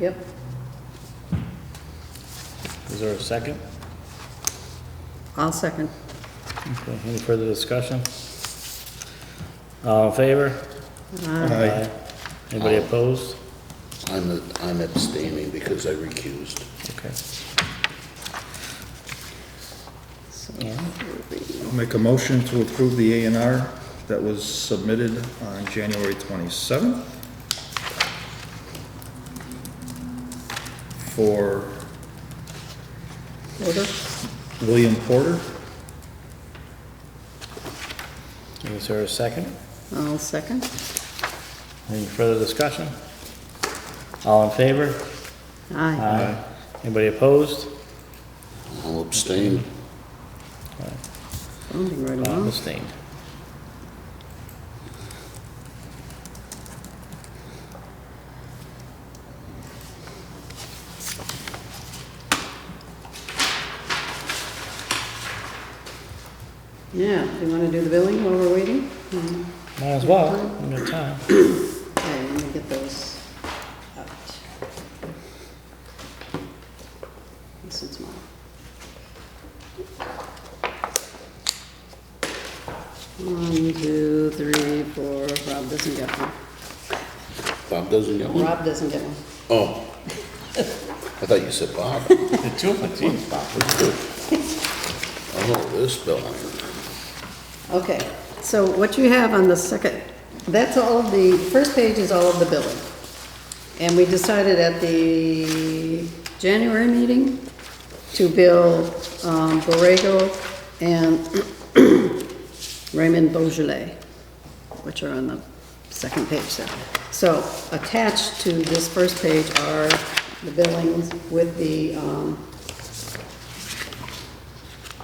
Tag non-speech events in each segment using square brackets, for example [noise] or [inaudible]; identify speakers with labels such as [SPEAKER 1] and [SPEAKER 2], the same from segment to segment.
[SPEAKER 1] Yep.
[SPEAKER 2] Is there a second?
[SPEAKER 1] I'll second.
[SPEAKER 2] Okay, Any further discussion? All in favor? Aye. Anybody opposed?
[SPEAKER 3] I'm, I'm abstaining because I recused.
[SPEAKER 2] Okay.
[SPEAKER 1] So,
[SPEAKER 4] I'll Make a motion to approve the A and R that was submitted on January 27th for
[SPEAKER 1] Order?
[SPEAKER 4] William Porter.
[SPEAKER 2] Is there a second?
[SPEAKER 1] I'll second.
[SPEAKER 2] Any further discussion? All in favor?
[SPEAKER 1] Aye.
[SPEAKER 2] Aye. Uh-huh. Anybody opposed?
[SPEAKER 3] I'll abstain.
[SPEAKER 1] Moving right
[SPEAKER 2] Uh,
[SPEAKER 1] along.
[SPEAKER 2] Abstained.
[SPEAKER 1] Yeah, do you want to do the billing while we're waiting? Mm,
[SPEAKER 2] Might as well, we got time.
[SPEAKER 1] Okay, let me get those out. This is mine. One, two, three, four, Rob doesn't get one.
[SPEAKER 3] Bob doesn't get one?
[SPEAKER 1] Rob doesn't get one.
[SPEAKER 3] Oh. I thought you said Bob.
[SPEAKER 2] The two of us, geez.
[SPEAKER 3] Oh, this building.
[SPEAKER 1] Okay, so what you have on the second, that's all of the, first page is all of the billing. And we decided at the January meeting to bill um, Borrego and [clears throat] Raymond Beaujolais, which are on the second page there. So attached to this first page are the billings with the, um,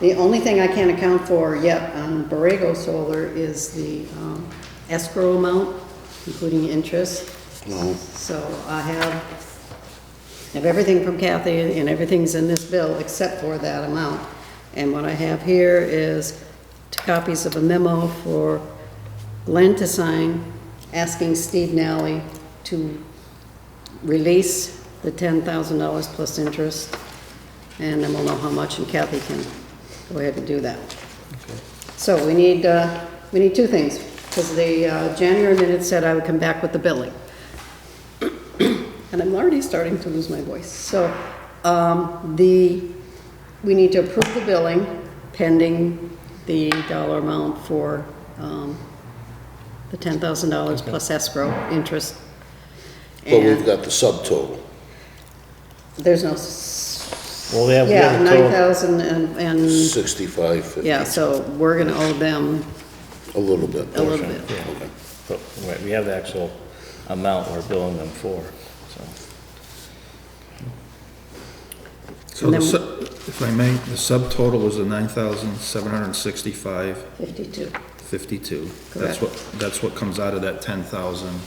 [SPEAKER 1] the only thing I can't account for yet on Borrego Solar is the um, escrow amount, including interest.
[SPEAKER 3] No.
[SPEAKER 1] So I have, have everything from Kathy, and everything's in this bill except for that amount. And what I have here is two copies of a memo for Glenn to sign, asking Steve Nally to release the ten thousand dollars plus interest, and then we'll know how much, and Kathy can go ahead and do that. So we need, uh, we need two things, because the uh, January minutes said I would come back with the billing. And I'm already starting to lose my voice. So, um, the, we need to approve the billing pending the dollar amount for, um, the ten thousand dollars plus escrow interest.
[SPEAKER 3] But we've
[SPEAKER 1] And-
[SPEAKER 3] got the subtotal.
[SPEAKER 1] there's no. s-
[SPEAKER 2] Well, we have- we
[SPEAKER 1] Yeah,
[SPEAKER 2] have a total-
[SPEAKER 1] nine thousand and, and,
[SPEAKER 3] Sixty-five fifty.
[SPEAKER 1] yeah, so we're gonna owe them
[SPEAKER 3] A little bit.
[SPEAKER 1] a little
[SPEAKER 2] Portion,
[SPEAKER 1] bit.
[SPEAKER 3] Okay.
[SPEAKER 2] But, right, Oh, we have the actual amount we're billing them for, so.
[SPEAKER 4] So the
[SPEAKER 1] And then-
[SPEAKER 4] su- if I may, the subtotal was the 9,765.52.
[SPEAKER 1] Fifty-two.
[SPEAKER 4] That's
[SPEAKER 1] Correct.
[SPEAKER 4] what, that's what comes out of that 10,000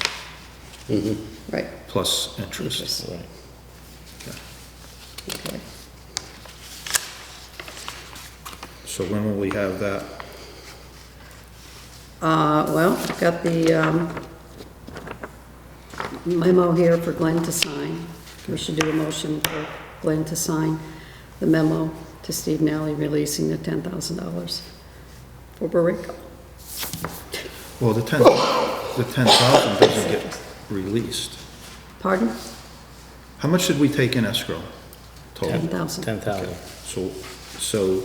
[SPEAKER 1] Right.
[SPEAKER 4] plus interest.
[SPEAKER 2] right.
[SPEAKER 4] Okay.
[SPEAKER 1] Okay.
[SPEAKER 4] So when will we have that?
[SPEAKER 1] Uh, well, I've got the, um, memo here for Glenn to sign. We should do a motion for Glenn to sign the memo to Steve Nally releasing the ten thousand dollars for Borrego.
[SPEAKER 4] Well, the 10, the 10,000 doesn't get released.
[SPEAKER 1] Pardon?
[SPEAKER 4] How much did we take in escrow total?
[SPEAKER 1] Ten thousand.
[SPEAKER 2] Ten thousand.
[SPEAKER 4] So, so,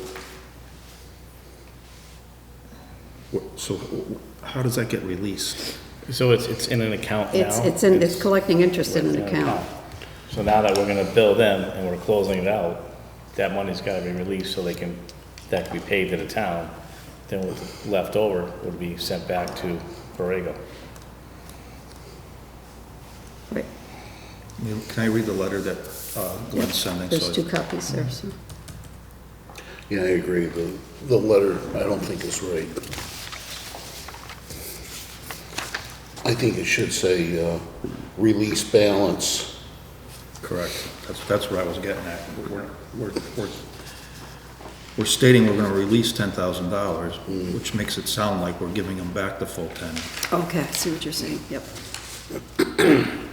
[SPEAKER 4] wh- so wh- how does that get released?
[SPEAKER 2] So it's, it's in an account now?
[SPEAKER 1] It's, it's in, it's collecting interest in an account.
[SPEAKER 2] So now that we're gonna bill them and we're closing it out, that money's gotta be released so they can, that can be paid to the town. Then what's left over would be sent back to Borrego.
[SPEAKER 1] Right.
[SPEAKER 4] I mean, Can I read the letter that uh, Glenn's sending?
[SPEAKER 1] There's
[SPEAKER 4] So-
[SPEAKER 1] two copies there, so.
[SPEAKER 3] Yeah, I agree. The, the letter, I don't think is right. I think it should say, uh, release balance.
[SPEAKER 4] Correct. That's, that's what I was getting at. We're, we're, we're- we're stating we're gonna release ten thousand dollars, which makes it sound like we're giving them back the full ten.
[SPEAKER 1] Okay, I see what you're saying, yep.